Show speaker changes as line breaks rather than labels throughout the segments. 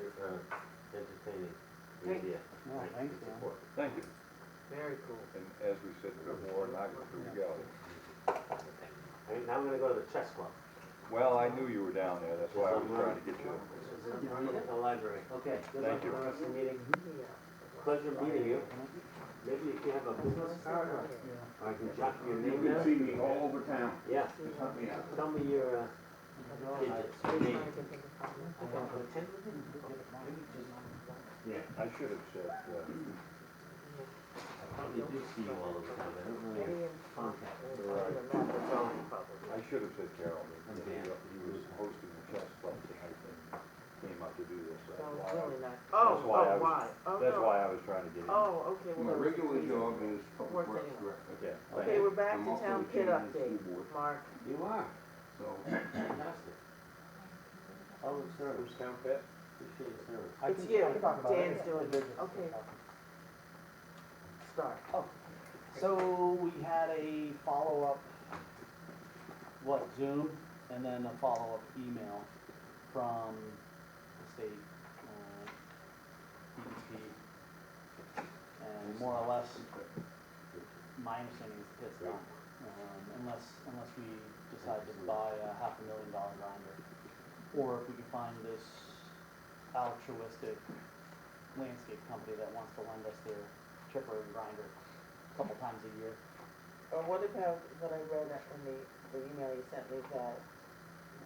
uh, Oh,
Thank you, Dan.
Thank you.
Very cool.
And as we said before, and I go through Galley.
Hey, now I'm gonna go to the chess club.
Well, I knew you were down there, that's why I was trying to get you.
I'm at the library.
Okay, good luck
Thank
for
you.
the rest of the meeting.
Pleasure meeting you. Maybe if you have a business card, or I can jot your
You
name
can see
down.
me all over town.
Yeah,
Help me out.
tell me your, uh, digits. I can put ten.
Yeah.
I should have said, uh,
I probably do see you all the time, I don't know your contact.
I should have said Carol, because he he was hosting the chess club tonight and came up to do this. That's why I-
Oh,
That's
oh,
why I was-
why? Oh,
That's
no.
why I was trying to get in.
Oh, okay,
My
well.
regular job is public
Working.
works director.
Okay,
Okay, thank you.
we're back
I'm
to
also
town
the
pit
chairman of the
update,
school board.
Mark.
You are,
So,
fantastic. All the service,
Town pit?
Oh, appreciate your service.
It's you, Dan's doing it, okay, start.
So we had a follow-up, what, Zoom, and then a follow-up email from the state, uh, DEP. And more or less, my understanding is the pit's done, um, unless, unless we decide to buy a half a million dollar grinder. Or if we can find this altruistic landscape company that wants to lend us their chipper and grinder a couple times a year.
Well, what about what I read in the, the email you sent me that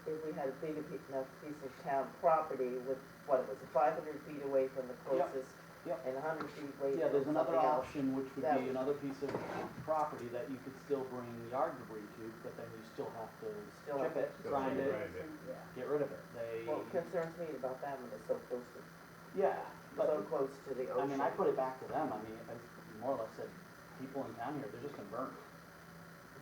if we had a big enough piece of town property with, what was it, five hundred feet away from the
Yep,
closest?
yep.
And hundred feet away from
Yeah, there's another
something else?
option, which would
That-
be another piece of property that you could still bring yard debris to, but then you still have to
Still have
chip it,
to-
grind it,
Yeah.
get rid of it.
Well, it
They,
concerns me about that when it's so close to,
yeah,
so
but,
close to the
I
ocean.
mean, I put it back to them, I mean, I more or less said, people in town here, they're just gonna burn it.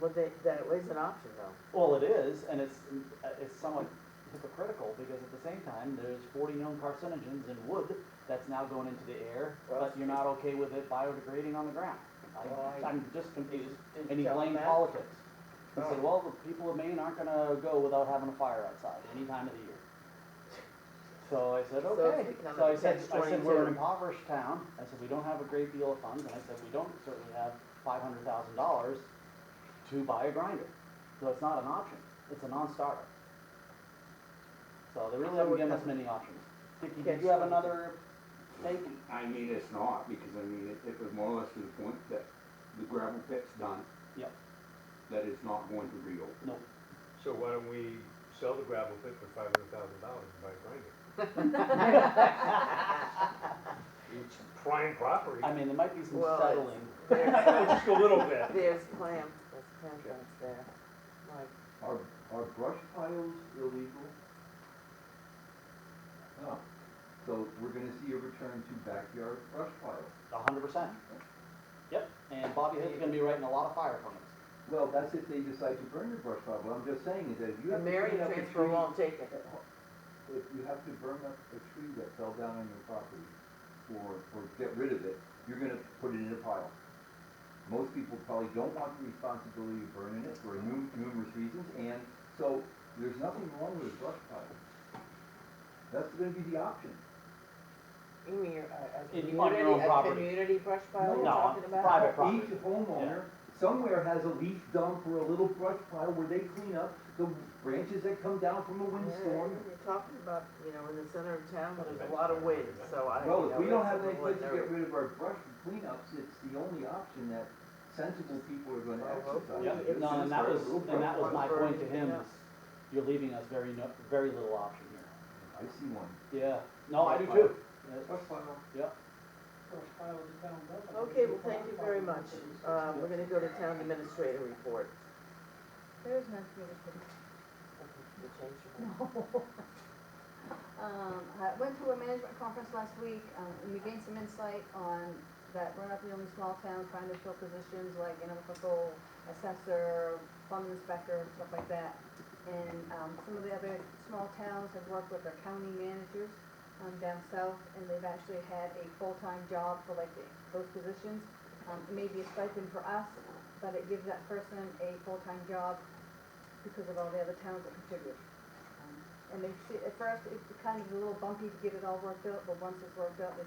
Well, they, that is an option though.
Well, it is, and it's, uh, it's somewhat hypocritical, because at the same time, there's forty known carcinogens in wood that's now going into the air, but you're not okay with it biodegrading on the ground. I- I'm just confused, and he
Tell them
blamed
that.
politics. He
Oh.
said, well, the people of Maine aren't gonna go without having a fire outside any time of the year. So I said,
So it's
okay,
become
so
a
I said, I said, we're
catch-22.
an impoverished town, I said, we don't have a great deal of funds, and I said, we don't certainly have five hundred thousand dollars to buy a grinder. So it's not an option, it's a non-starter. So they really
So
haven't
we're
given us
coming-
many options. Dickie,
Catch
did you have
22.
another take?
I mean, it's not, because I mean, it, it was more or less to the point that the gravel pit's done.
Yep.
That it's not going to reopen.
No.
So why don't we sell the gravel pit for five hundred thousand dollars and buy a grinder? It's prime property.
I mean, there might be some
Well, it's-
settling.
There's,
Just a little bit.
there's clam, there's clam guts there. Like,
Are, are brush piles illegal? No. So we're gonna see a return to backyard brush piles.
A hundred percent. Yep, and Bobby Hood's gonna be writing a lot of fire permits.
Well, that's if they decide to burn your brush pile, what I'm just saying is that if
The
you have to
Marion
clean up a
transfer
tree-
won't take it.
If you have to burn up a tree that fell down on your property, or, or get rid of it, you're gonna put it in a pile. Most people probably don't want the responsibility of burning it for nu- numerous reasons, and so there's nothing wrong with a brush pile. That's gonna be the option.
You mean, your- a, a
In- on
community,
your own
a
property.
community brush pile you're
No,
talking about?
private property.
Each homeowner somewhere has a leaf dump or a little brush pile where they clean up the branches that come down from a
Yeah,
windstorm.
You're talking about, you know, in the center of town, where there's a lot of wind, so I, you know.
Well, if we don't
it's
have
a
any place to
little
get rid of our brush and cleanups, it's the only option that sensible people are gonna
Well,
exercise.
hopefully Yeah,
Yep,
it's
no, and that was, and that was my
Burn
point to him,
it up.
is you're leaving us very, no- very little option
I see one.
here. Yeah, no, I do too.
Brush pile.
Yep.
Okay, well, thank you very much. Uh, we're gonna go to town administrator report.
There is no community.
You changed your mind.
Um, I went to a management conference last week, um, and we gained some insight on that we're not the only small town trying to fill positions like animal control, assessor, plumbing inspector, and stuff like that. And, um, some of the other small towns have worked with their county managers, um, down south, and they've actually had a full-time job for like the- those positions. Um, it may be a stipend for us, but it gives that person a full-time job because of all the other towns that contribute. Um, And they see, at first, it's kind of a little bumpy to get it all worked out, but once it's worked out, they